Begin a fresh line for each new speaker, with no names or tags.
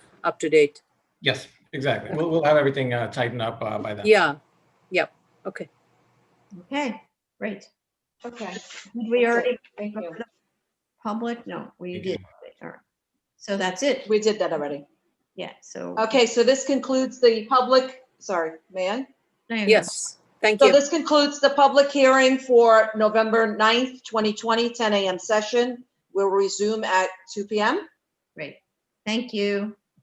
up to date.
Yes, exactly. We'll, we'll have everything uh, tightened up uh, by then.
Yeah,
Okay, great.
Okay,
Did We already,
thank you.
public, no, we
Thank you.
did. All right. So that's it.
We did that already.
Yeah, so.
Okay, so this concludes the public, sorry, man.
Diana,
yes, thank
So
you.
this concludes the public hearing for November 9th, 2020, 10 a.m. session. We'll resume at 2 p.m.
Great. Thank you.